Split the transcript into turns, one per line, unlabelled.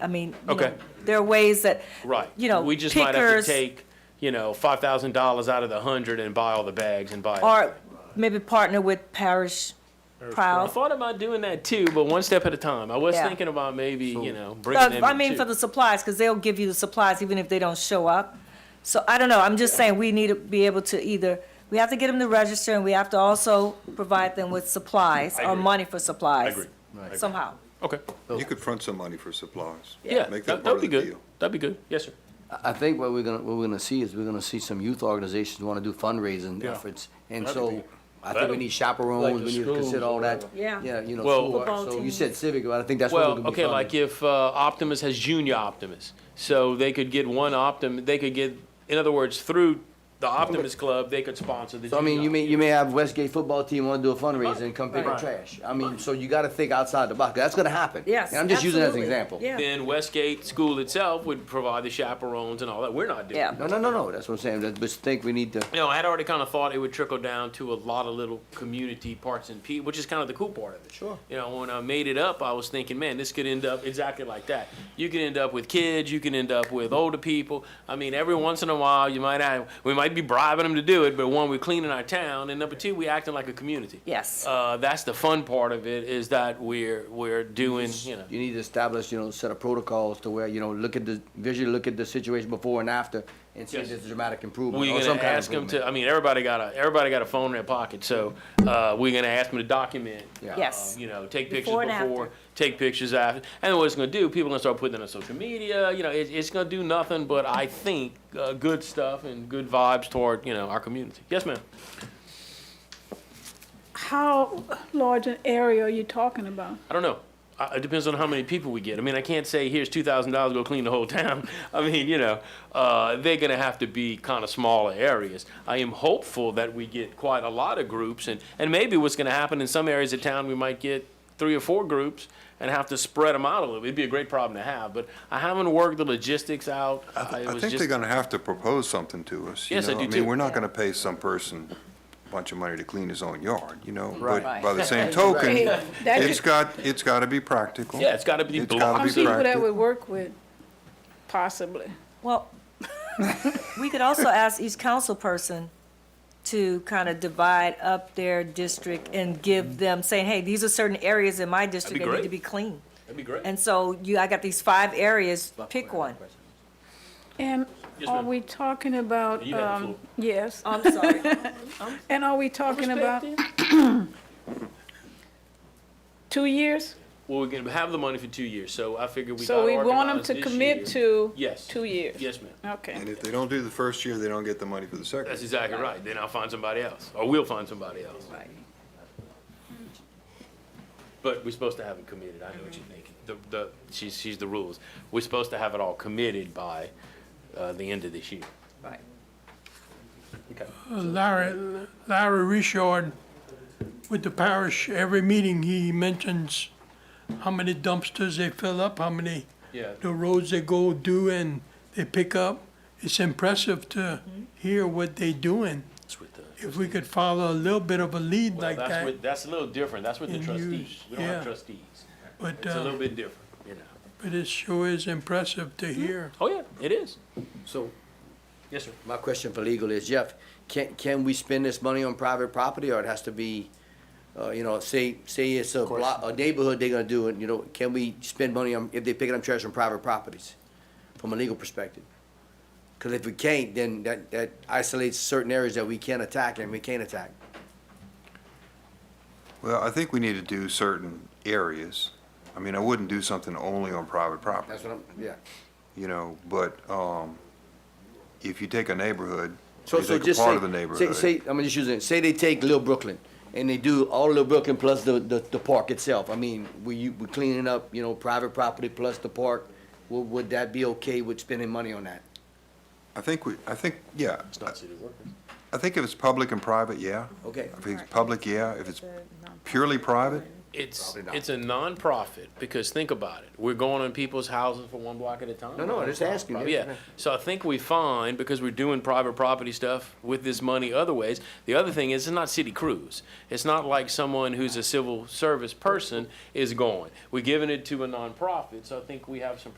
I mean, you
Okay.
know, there are ways that,
Right.
you know,
We just might have to
pickers
take, you know, five thousand dollars out of the hundred and buy all the bags and buy. it.
or maybe partner with parish
I
proud.
thought about doing that too, but one step at a time. I was
Yeah.
thinking about maybe, you know, bringing them.
So, I
in,
mean,
too.
for the supplies, because they'll give you the supplies even if they don't show up. So I don't know, I'm just saying, we need to be able to either, we have to get them to register, and we have to also provide them with supplies, or
agree.
money for supplies.
agree.
Somehow.
Okay.
You could front some money for supplies.
Yeah, that-
Make that
that'd
part
be
of the
good.
deal.
That'd be good. Yes, sir.
I think what we're gonna, what we're gonna see is we're gonna see some youth organizations wanna do fundraising
Yeah.
efforts. And
That'd be-
so, I think we need chaperones, we need to consider all that.
Yeah.
Yeah, you know,
Well-
school,
Football
so you
teams.
said civic, but I think that's what we're
Well,
gonna be
okay, like
funding.
if uh, Optimus has junior Optimus, so they could get one Optim, they could get, in other words, through the Optimus Club, they could sponsor the.
So I mean, you
junior
may, you may have Westgate football team wanna do a
Right.
fundraiser and come pick
Right.
up trash. I mean, so you gotta think outside the box, that's gonna happen.
Yes,
And I'm just using that as an
absolutely.
example.
Yeah.
Then Westgate School itself would provide the chaperones and all that. We're not doing.
Yeah.
that.
No, no, no, no, that's what I'm saying, that- but think we need to,
No, I had already kind of thought it would trickle down to a lot of little community parts and pe, which is kind of the cool part of it.
Sure.
You know, when I made it up, I was thinking, man, this could end up exactly like that. You could end up with kids, you can end up with older people. I mean, every once in a while, you might have, we might be bribing them to do it, but one, we're cleaning our town, and number two, we acting like a community.
Yes.
Uh, that's the fun part of it is that we're we're doing, you know.
you need to establish, you know, a set of protocols to where, you know, look at the, visually look at the situation before and after and see if
Yes.
there's a dramatic improvement
We're
or some
gonna
kind of
ask them
improvement.
to. I mean, everybody got a everybody got a phone in their pocket, so uh, we're gonna ask them to document.
Yeah.
Yes.
Um, You know, take pictures
Before and
before,
after.
take pictures after. And what it's gonna do, people gonna start putting it on social media, you know, it's, it's gonna do nothing but, I think, uh, good stuff and good vibes toward, you know, our community. Yes, ma'am?
How large an area are you talking about?
I don't know. I- It depends on how many people we get. I mean, I can't say, here's two thousand dollars, go clean the whole town. I mean, you know, uh, they're gonna have to be kinda smaller areas. I am hopeful that we get quite a lot of groups and, and maybe what's gonna happen in some areas of town, we might get three or four groups and have to spread them out a little. It'd be a great problem to have, but I haven't worked the logistics out. Uh, it
I
was
think they're
just-
gonna have to propose something to us, you
Yes, I
know?
do
I
too.
mean, we're not gonna pay some person a bunch of money to clean his own yard, you know? But
Right.
by the same token,
Hey, that
it's
could-
got, it's gotta be practical.
Yeah, it's gotta be
It's gotta
blocked.
be
Some people that
practical.
we work with, possibly.
Well, we could also ask each council person to kind of divide up their district and give them, saying, hey, these are certain areas in my district that need to
great.
be clean.
That'd be great.
And so you, I got these five areas, pick one.
And
Yes,
are
ma'am.
we talking about,
You have the
um,
floor.
yes,
I'm sorry.
and are we talking about two years?
Well, we're gonna have the money for two years, so I figure we gotta
So we want them
organize
to
this
commit
year.
to
Yes.
two years?
Yes, ma'am.
Okay.
And if they don't do the first year, they don't get the money for the
That's
second.
exactly right. Then I'll find somebody else, or we'll find somebody else. But we're supposed to have it committed. I know what you're thinking. The, the, she's, she's the rules. We're supposed to have it all committed by, uh, the end of this year.
Right.
Okay.
Larry, Larry Richard, with the parish, every meeting he mentions how many dumpsters they fill up, how many,
Yeah.
the roads they go do and they pick up. It's impressive to
Mm-hmm.
hear what they doing.
That's with the,
If we could follow a little bit of a lead
well,
like
that's
that,
with, that's a little different. That's with the
And
trustees.
use-
We don't have
yeah.
trustees.
but,
It's a little
uh,
bit different, you know.
but it sure is impressive to hear.
Oh, yeah, it is.
So,
Yes, sir.
My question for legal is, Jeff, can, can we spend this money on private property, or it has to be, uh, you know, say, say it's a block, a neighborhood, they're gonna do it, you know, can we spend money on, if they're picking up trash on private properties, from a legal perspective? Cause if we can't, then that, that isolates certain areas that we can attack and we can't attack.
Well, I think we need to do certain areas. I mean, I wouldn't do something only on private property.
That's what I'm, yeah.
you know, but, um, if you take a neighborhood,
So,
you
so
take a
just
part of the
say, say,
neighborhood.
say, I'm just using, it. say they take Little Brooklyn, and they do all Little Brooklyn plus the, the, the park itself. I mean, we, you, we cleaning up, you know, private property plus the park, would, would that be okay with spending money on that?
I think we, I think, yeah,
It's not city workers.
I think if it's public and private, yeah.
Okay.
If it's public, yeah. If it's purely private,
It's,
Probably not.
it's a nonprofit, because think about it. We're going on people's houses for one block at a time.
No, no, I'm just asking.
Yeah, so I think we find, because we're doing private property stuff with this money other ways, the other thing is, it's not city crews. It's not like someone who's a civil service person is going. We're giving it to a nonprofit, so I think we have some